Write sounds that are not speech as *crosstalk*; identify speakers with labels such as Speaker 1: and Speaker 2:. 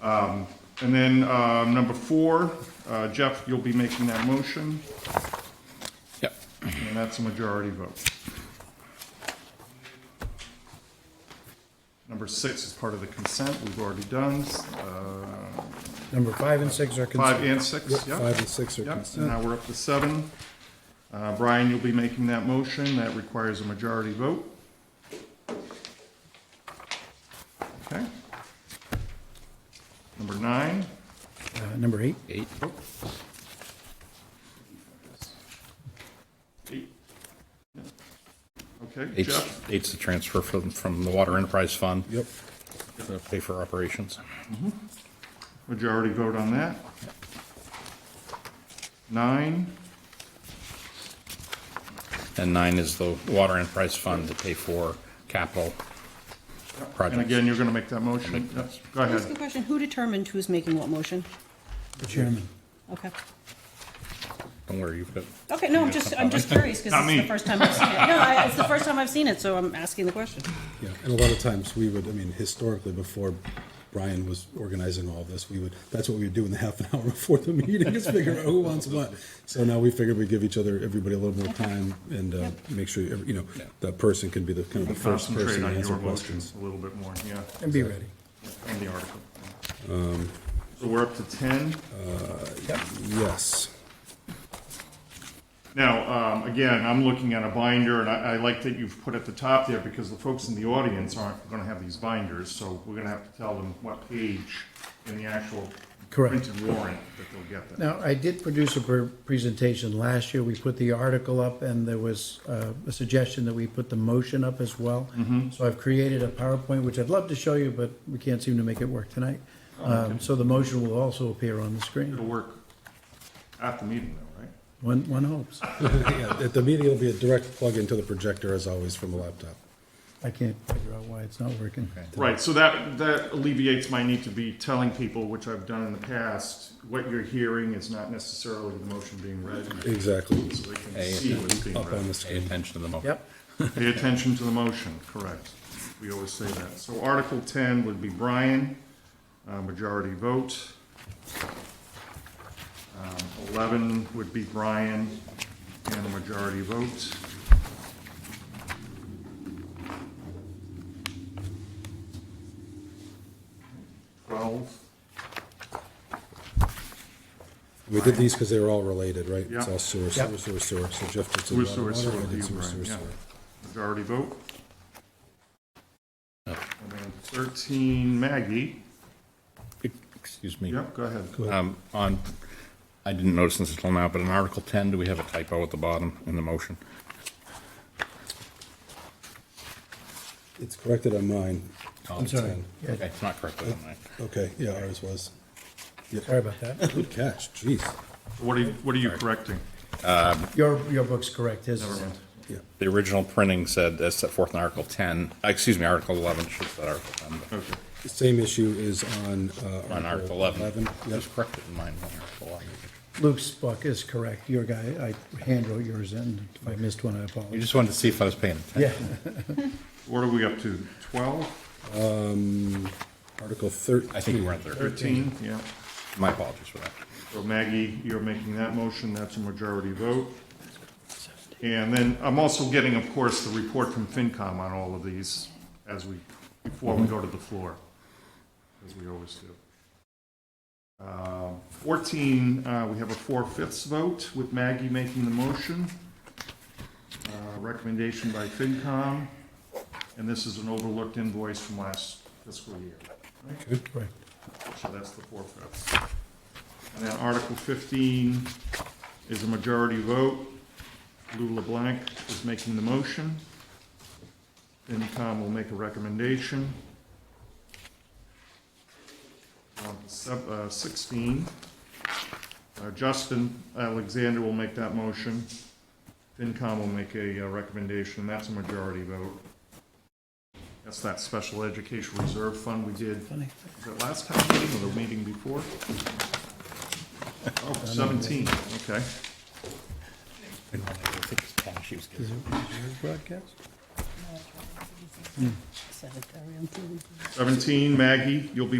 Speaker 1: Um, And then um, number four, uh, Jeff, you'll be making that motion,
Speaker 2: Yep.
Speaker 1: and that's a majority vote. Number six is part of the consent, we've already done, uh,
Speaker 3: Number five and six are consent.
Speaker 1: five and six,
Speaker 3: Yep,
Speaker 1: yeah?
Speaker 3: Five and six are
Speaker 1: Yep, and
Speaker 3: consent.
Speaker 1: now we're up to seven. Uh, Brian, you'll be making that motion, that requires a majority vote. Okay. Number nine,
Speaker 3: Uh, Number eight,
Speaker 2: Eight.
Speaker 1: eight. Okay, Jeff,
Speaker 2: Eight's, eight's the transfer from, from the Water Enterprise Fund.
Speaker 3: yep.
Speaker 2: to Pay for operations.
Speaker 1: majority vote on that. Nine,
Speaker 2: And nine is the Water Enterprise Fund to pay for capital
Speaker 1: and
Speaker 2: projects.
Speaker 1: again, you're gonna make that motion? Yep, Go
Speaker 4: Can I ask a
Speaker 1: ahead.
Speaker 4: question? Who determined who's making what motion?
Speaker 3: The chairman.
Speaker 4: Okay.
Speaker 2: Don't worry, you've got,
Speaker 4: Okay, no, I'm just, I'm just curious because
Speaker 1: Not
Speaker 4: it's
Speaker 1: me.
Speaker 4: the first time I've seen it. No, I- it's the first time I've seen it, so I'm asking the question.
Speaker 5: Yeah, and a lot of times we would, I mean, historically, before Brian was organizing all this, we would, that's what we would do in the half an hour *laughs* before the meeting, is figure out who wants what. So now we figured we'd give each other, everybody a little more time and uh, make sure, every- you know, that person can be the, kind of the first
Speaker 1: Concentrate
Speaker 5: person to
Speaker 1: on
Speaker 5: answer
Speaker 1: your
Speaker 5: questions.
Speaker 1: motions a little bit more, yeah,
Speaker 3: And be ready.
Speaker 1: on the article. So we're up to ten.
Speaker 5: Yes. *laughs*
Speaker 1: Now, um, again, I'm looking at a binder, and I, I like that you've put at the top there, because the folks in the audience aren't gonna have these binders, so we're gonna have to tell them what page in the actual
Speaker 3: Correct.
Speaker 1: printed warrant that they'll get that.
Speaker 3: Now, I did produce a per- presentation last year. We put the article up and there was uh, a suggestion that we put the motion up as well.
Speaker 1: Mm-hmm.
Speaker 3: So I've created a PowerPoint, which I'd love to show you, but we can't seem to make it work tonight.
Speaker 1: Oh,
Speaker 3: Um, So the motion will also appear on the
Speaker 1: It'll
Speaker 3: screen.
Speaker 1: work at the meeting though, right?
Speaker 3: One, one hopes.
Speaker 5: Yeah, At the meeting, it'll be a direct plug into the projector, as always, from the laptop.
Speaker 3: I can't figure out why it's not working.
Speaker 1: Right, so that, that alleviates my need to be telling people, which I've done in the past, what you're hearing is not necessarily the motion being read,
Speaker 5: Exactly.
Speaker 1: so they can see what's being
Speaker 5: Up on
Speaker 1: read.
Speaker 5: the
Speaker 2: pay
Speaker 5: screen.
Speaker 2: attention to the motion.
Speaker 3: Yep,
Speaker 1: Pay attention to the motion, correct. We always say that. So Article 10 would be Brian, uh, majority vote. Um, 11 would be Brian and a majority vote. Twelve,
Speaker 5: We did these because they were all related, right? It's
Speaker 1: Yeah.
Speaker 5: all sewer,
Speaker 3: Yeah.
Speaker 5: sewer, sewer, sewer. So Jeff did
Speaker 1: sewer,
Speaker 5: sewer,
Speaker 1: sewer,
Speaker 5: water,
Speaker 1: sewer,
Speaker 5: I did
Speaker 1: you,
Speaker 5: sewer,
Speaker 1: Brian,
Speaker 5: sewer,
Speaker 1: yeah.
Speaker 5: sewer.
Speaker 1: Majority vote.
Speaker 2: Oh.
Speaker 1: And then 13, Maggie.
Speaker 2: Excuse me.
Speaker 1: Yep, go ahead.
Speaker 2: Um, on, I didn't notice this until now, but in Article ten, do we have a typo at the bottom in the motion?
Speaker 5: It's corrected on mine.
Speaker 3: I'm sorry. Yeah,
Speaker 2: Oh, Okay, it's not corrected on mine.
Speaker 5: Oh, Okay, yeah, ours *coughs* was.
Speaker 3: Sorry about that.
Speaker 5: Good catch, jeez.
Speaker 1: What are you, what are you correcting?
Speaker 3: Your, your book's correct. His is
Speaker 5: Yeah,
Speaker 2: The original printing said, as set forth in Article ten, uh, excuse me, Article eleven, should have said Article ten, but
Speaker 1: Okay.
Speaker 5: The same issue is on, uh.
Speaker 2: on Article eleven.
Speaker 5: Yep,
Speaker 2: Just corrected in mine, on Article 11.
Speaker 3: Luke's book is correct. Your guy, I handwrote yours in. If I missed one, I
Speaker 2: You
Speaker 3: apologize.
Speaker 2: just wanted to see if I was paying attention.
Speaker 3: Yeah,
Speaker 1: What are we up to? Twelve?
Speaker 5: Um, Article thirteen.
Speaker 2: I think we were at there.
Speaker 1: Thirteen? Yeah.
Speaker 2: My apologies for that.
Speaker 1: So Maggie, you're making that motion, that's a majority vote. And then I'm also getting, of course, the report from FinCom on all of these as we, before we go to the floor, as we always do. Uh, Fourteen, uh, we have a four-fifths vote with Maggie making the motion. Uh, Recommendation by FinCom, and this is an overlooked invoice from last fiscal year.
Speaker 3: correct.
Speaker 1: So that's the four fifths. And then Article fifteen is a majority vote. Lou LeBlanc is making the motion. FinCom will make a recommendation. Um, sep- uh, Sixteen, uh, Justin Alexander will make that motion. FinCom will make a uh, recommendation, that's a majority vote. That's that special education reserve fund we did
Speaker 3: Funny.
Speaker 1: was it last time meeting or the meeting before? Oh, 17, okay.
Speaker 2: I think it's cash he was giving.
Speaker 3: Broadcast?
Speaker 4: 7:30, I'm feeling-
Speaker 1: 17, Maggie, you'll be